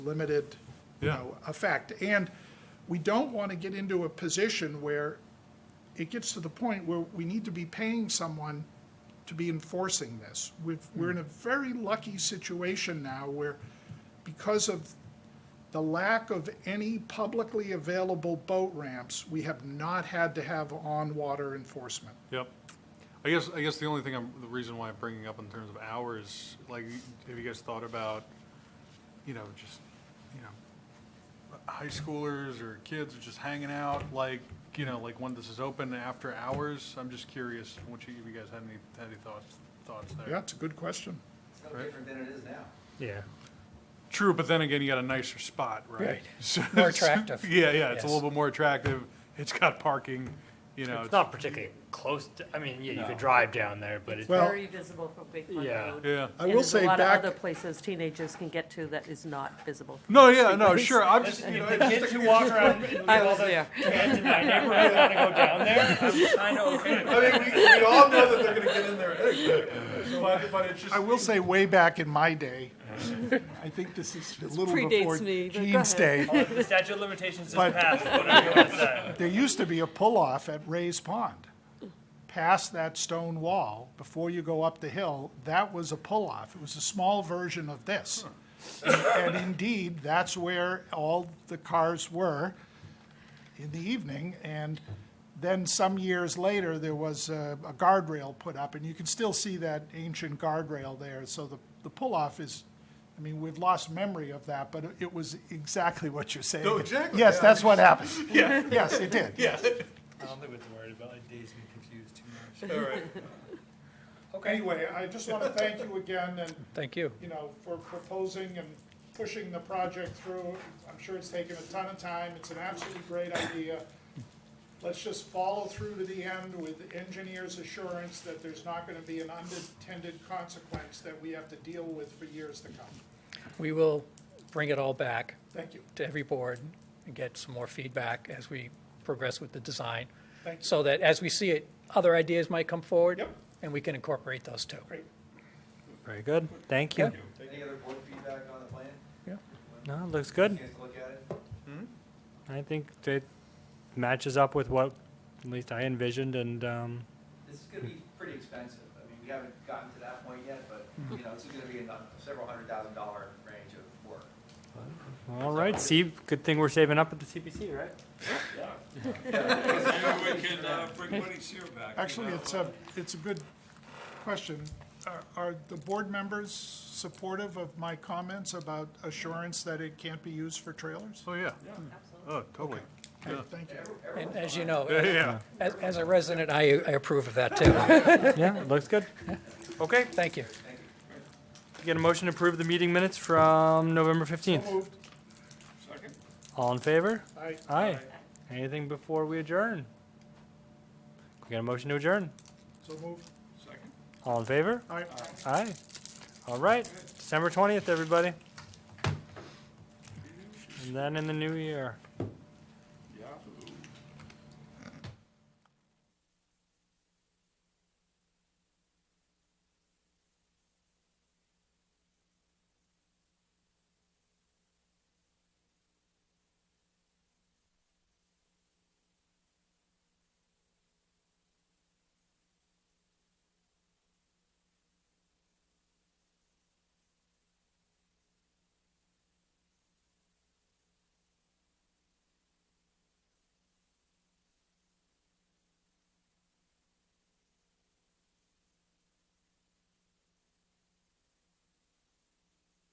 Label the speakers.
Speaker 1: limited, you
Speaker 2: Yeah.
Speaker 1: know, effect. And we don't want to get into a position where it gets to the point where we need to be paying someone to be enforcing this. We've, we're in a very lucky situation now where, because of the lack of any publicly available boat ramps, we have not had to have on-water enforcement.
Speaker 2: Yep. I guess, I guess the only thing I'm, the reason why I'm bringing up in terms of hours, like, have you guys thought about, you know, just, you know, high schoolers or kids just hanging out, like, you know, like when this is open after hours? I'm just curious, what you, if you guys had any, had any thoughts, thoughts there?
Speaker 1: Yeah, it's a good question.
Speaker 3: It's no different than it is now.
Speaker 4: Yeah.
Speaker 2: True, but then again, you got a nicer spot, right?
Speaker 4: Right.
Speaker 2: So-
Speaker 4: More attractive.
Speaker 2: Yeah, yeah, it's a
Speaker 4: Yes.
Speaker 2: little bit more attractive. It's got parking, you know.
Speaker 4: It's not particularly close to, I mean, yeah, you could drive down there, but it's,
Speaker 1: Well-
Speaker 5: very visible from Big Pond
Speaker 4: Yeah.
Speaker 5: Road.
Speaker 2: Yeah.
Speaker 1: I
Speaker 5: And
Speaker 1: will
Speaker 5: there's
Speaker 1: say
Speaker 5: a lot of
Speaker 1: back-
Speaker 5: other places teenagers can get to that is not visible. from
Speaker 2: No,
Speaker 5: the
Speaker 2: yeah, no,
Speaker 5: streetlights.
Speaker 2: sure, I'm just, you know,
Speaker 4: the kids who walk around and look
Speaker 5: I
Speaker 4: at all
Speaker 5: was
Speaker 4: the
Speaker 5: there.
Speaker 4: kids in my neighborhood want to go down there, I'm kind of okay with it.
Speaker 2: I mean, we, we all know that they're gonna get in there anyway, but, but it's just.
Speaker 1: I will say way back in my day, I think this is a little
Speaker 5: predates
Speaker 1: before
Speaker 5: me, but go
Speaker 1: Gene's day,
Speaker 5: ahead.
Speaker 4: The statute of limitations is
Speaker 1: But-
Speaker 4: passed, what are you going to say?
Speaker 1: There used to be a pull-off at Ray's Pond. Past that stone wall, before you go up the hill, that was a pull-off. It was a small version of this. And indeed, that's where all the cars were in the evening. And then some years later, there was a a guardrail put up, and you can still see that ancient guardrail there. So the, the pull-off is, I mean, we've lost memory of that, but it was exactly what you're saying.
Speaker 2: No, Oh, exactly,
Speaker 1: Yes,
Speaker 2: yeah.
Speaker 1: that's what happened. Yes, it did.
Speaker 2: Yeah,
Speaker 6: I don't think we have to worry about like dazed and confused too much.
Speaker 2: all right.
Speaker 1: Anyway, I just want to thank you again and,
Speaker 4: Thank you.
Speaker 1: you know, for proposing and pushing the project through. I'm sure it's taken a ton of time. It's an absolutely great idea. Let's just follow through to the end with engineers' assurance that there's not going to be an unintended consequence that we have to deal with for years to come.
Speaker 7: We will bring it all back
Speaker 1: Thank you.
Speaker 7: to every board and get some more feedback as we progress with the design.
Speaker 1: Thank you.
Speaker 7: So that as we see it, other ideas might come forward.
Speaker 1: Yep.
Speaker 7: And we can incorporate those too.
Speaker 1: Great.
Speaker 8: Very good, thank you.
Speaker 3: Any other board feedback on the plan?
Speaker 8: No, it looks good.
Speaker 3: Chance to look at it?
Speaker 8: I think it matches up with what at least I envisioned and, um,
Speaker 3: This is gonna be pretty expensive. I mean, we haven't gotten to that point yet, but, you know, this is gonna be in the several hundred thousand dollar range of work.
Speaker 8: all right, see, good thing we're saving up at the CPC, right?
Speaker 6: Maybe we can, uh, bring Woody Seer back. you
Speaker 1: Actually,
Speaker 6: know?
Speaker 1: it's a, it's a good question. Are- Are the board members supportive of my comments about assurance that it can't be used for trailers?
Speaker 2: Oh, yeah. Oh, totally.
Speaker 1: Okay, Thank you.
Speaker 7: And as you know,
Speaker 2: Yeah.
Speaker 7: as, as a resident, I, I approve of that too.
Speaker 8: Yeah, it looks good. Okay,
Speaker 7: Thank you.
Speaker 8: get a motion to approve the meeting minutes from November fifteenth.
Speaker 1: Moved.
Speaker 8: All in favor?
Speaker 1: Aye.
Speaker 8: Aye. Anything before we adjourn? Can we Get a motion to adjourn.
Speaker 1: So moved.
Speaker 8: All in favor?
Speaker 1: Aye.
Speaker 8: Aye. All right, December twentieth, everybody. And then in the new year.